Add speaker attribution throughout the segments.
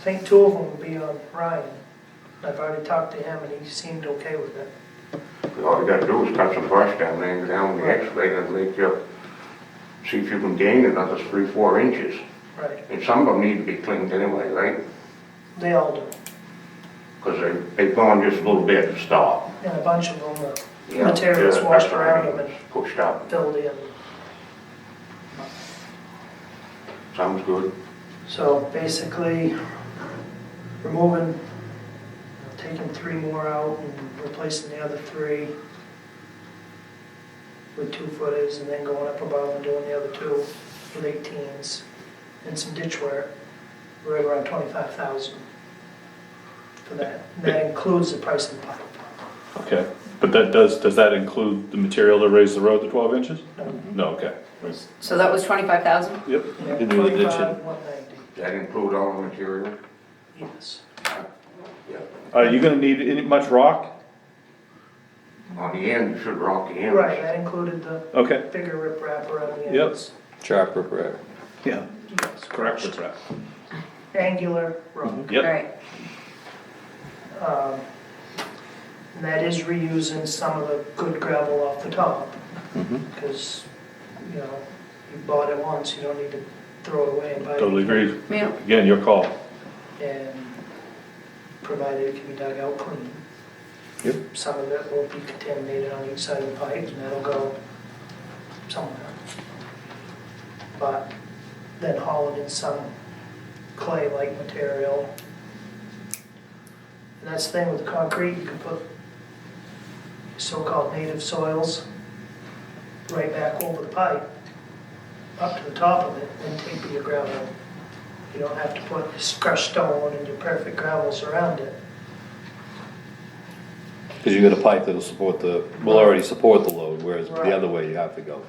Speaker 1: think two of them will be on Ryan. I've already talked to him and he seemed okay with it.
Speaker 2: All you gotta do is cut some brush down there and go down with the excavator and make your, see if you can gain another three, four inches.
Speaker 1: Right,
Speaker 2: And some of them need to be cleaned anyway, right?
Speaker 1: they all do.
Speaker 2: Because they, they've gone just a little bit and stopped.
Speaker 1: And a bunch of them, the
Speaker 2: Yeah,
Speaker 1: materials
Speaker 2: yeah,
Speaker 1: washed
Speaker 2: that's what I
Speaker 1: around
Speaker 2: mean,
Speaker 1: them and
Speaker 2: Pushed up,
Speaker 1: filled in.
Speaker 2: sounds good.
Speaker 1: So basically, removing, taking three more out and replacing the other three with two footers and then going up above and doing the other two with eighteens and some ditch wear, we're right around twenty-five thousand for that. And that includes the price of the pipe.
Speaker 3: Okay, but that does, does that include the material to raise the road to twelve inches?
Speaker 1: No,
Speaker 3: No, okay.
Speaker 4: So that was twenty-five thousand?
Speaker 3: Yep. you do the ditching.
Speaker 1: Twenty-five, one ninety,
Speaker 2: Does that include all the material?
Speaker 1: yes.
Speaker 2: Yeah.
Speaker 3: Are you gonna need any, much rock?
Speaker 2: On the end, you should rock the ends.
Speaker 1: Right, that included the
Speaker 3: Okay.
Speaker 1: bigger rip wrap around the
Speaker 3: Yep.
Speaker 1: ends.
Speaker 5: Chopper repair.
Speaker 3: Yeah.
Speaker 1: Yes,
Speaker 3: Correct with that.
Speaker 1: Angular rock.
Speaker 3: Yep,
Speaker 4: Right,
Speaker 1: Um, And that is reusing some of the good gravel off the top. Because, you know, you bought it once, you don't need to throw it away and buy it.
Speaker 3: totally agree.
Speaker 4: yeah,
Speaker 3: Again, your call.
Speaker 1: And provided it can be dug out clean.
Speaker 5: Yep.
Speaker 1: Some of it will be contaminated on each side of the pipe and that'll go somewhere. But then hauling in some clay-like material. And that's the thing with concrete, you can put so-called native soils right back over the pipe, up to the top of it, and take your gravel. You don't have to put this crushed stone and your perfect gravels around it.
Speaker 5: Cause you got a pipe that'll support the, will already support the load, whereas the other way you have to go.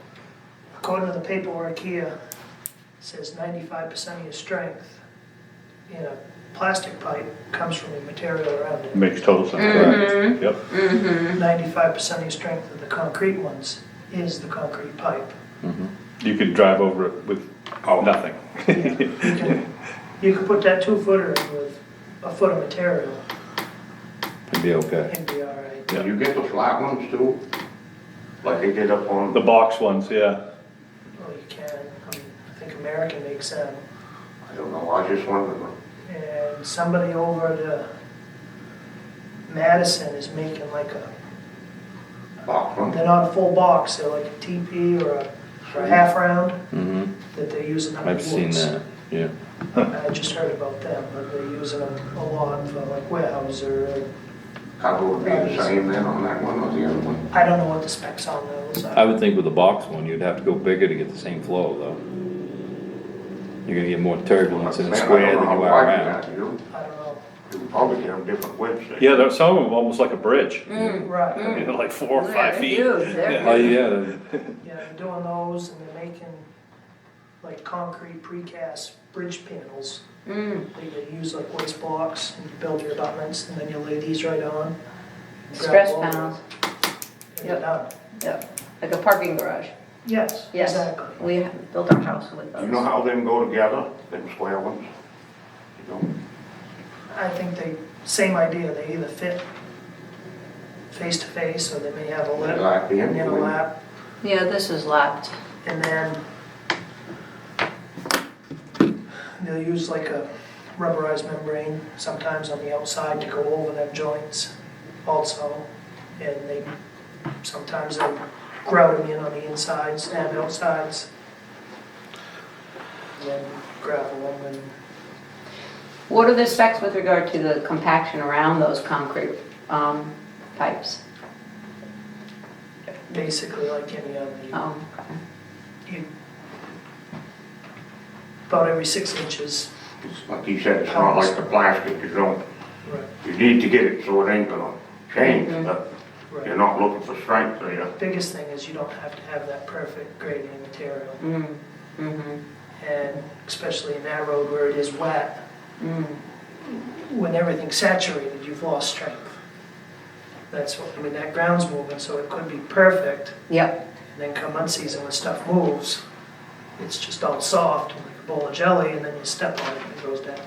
Speaker 1: According to the paperwork here, it says ninety-five percent of your strength in a plastic pipe comes from the material around it.
Speaker 3: Makes total
Speaker 4: Mm-hmm.
Speaker 3: sense. Yep,
Speaker 1: Ninety-five percent of your strength of the concrete ones is the concrete pipe.
Speaker 3: you could drive over it with nothing.
Speaker 1: You can, you can put that two-footer in with a foot of material
Speaker 5: It'd be okay.
Speaker 1: and be all right.
Speaker 2: Did you get the flat ones too? Like they did up on,
Speaker 3: The box ones, yeah.
Speaker 1: Well, you can, I mean, I think American makes them.
Speaker 2: I don't know, I just wondered.
Speaker 1: And somebody over at uh, Madison is making like a
Speaker 2: box one.
Speaker 1: They're not a full box, they're like a TP or a, or a half round
Speaker 5: Mm-hmm.
Speaker 1: that they're using on the
Speaker 5: I've
Speaker 1: woods.
Speaker 5: seen that, yeah.
Speaker 1: I just heard about them, but they're using them a lot for like warehouse or,
Speaker 2: Cover would be the same then on that one or the other one?
Speaker 1: I don't know what the specs on those
Speaker 5: I
Speaker 1: are.
Speaker 5: would think with a box one, you'd have to go bigger to get the same flow though. You're gonna get more turbulence in a
Speaker 2: Man, I
Speaker 5: square
Speaker 2: don't
Speaker 5: than
Speaker 2: know
Speaker 5: you
Speaker 2: how
Speaker 5: are
Speaker 2: wide
Speaker 5: around.
Speaker 2: that is.
Speaker 1: I don't know,
Speaker 2: You could probably get them different widths. there.
Speaker 3: Yeah, there, some of them almost like a bridge,
Speaker 1: right,
Speaker 3: you know, like four or
Speaker 4: Yeah,
Speaker 3: five
Speaker 4: they're
Speaker 3: feet.
Speaker 4: huge, Mm. they're
Speaker 5: Oh,
Speaker 3: Yeah.
Speaker 5: yeah,
Speaker 1: yeah, they're doing those and they're making like concrete precast bridge panels.
Speaker 4: mm,
Speaker 1: that you use like waste blocks and you build your abutments and then you lay these right on. grab
Speaker 4: stress
Speaker 1: all of them,
Speaker 4: panels,
Speaker 1: And they're
Speaker 4: Yep.
Speaker 1: done,
Speaker 4: yep, like a parking garage,
Speaker 1: yes,
Speaker 4: yes.
Speaker 1: exactly.
Speaker 4: We ha- built our house with
Speaker 2: You know
Speaker 4: those.
Speaker 2: how them go together, them square ones? You don't-
Speaker 1: I think they, same idea, they either fit face to face, or they may have a
Speaker 2: They
Speaker 1: lip
Speaker 2: like the
Speaker 1: and then a
Speaker 2: end.
Speaker 1: lap,
Speaker 4: Yeah, this is lapped,
Speaker 1: and then they'll use like a rubberized membrane sometimes on the outside to go over them joints also, and they, sometimes they grout them in on the insides and outsides. And then gravel them and
Speaker 4: what are the specs with regard to the compaction around those concrete, um, pipes?
Speaker 1: basically like any other. you
Speaker 4: Oh, okay.
Speaker 1: you, about every six inches.
Speaker 2: It's Like he said, it's not like the plastic, you don't,
Speaker 1: Right.
Speaker 2: you need to get it so it ain't gonna change, but you're
Speaker 1: Right.
Speaker 2: not looking for strength there.
Speaker 1: Biggest thing is you don't have to have that perfect grading material,
Speaker 4: Mm, mm-hmm,
Speaker 1: and especially in that road where it is wet,
Speaker 4: mm,
Speaker 1: when everything's saturated, you've lost strength. That's what, I mean, that ground's moving, so it could be perfect,
Speaker 4: yep,
Speaker 1: and then come unseason when stuff moves, it's just all soft, and like a bowl of jelly, and then you step on it and it goes down.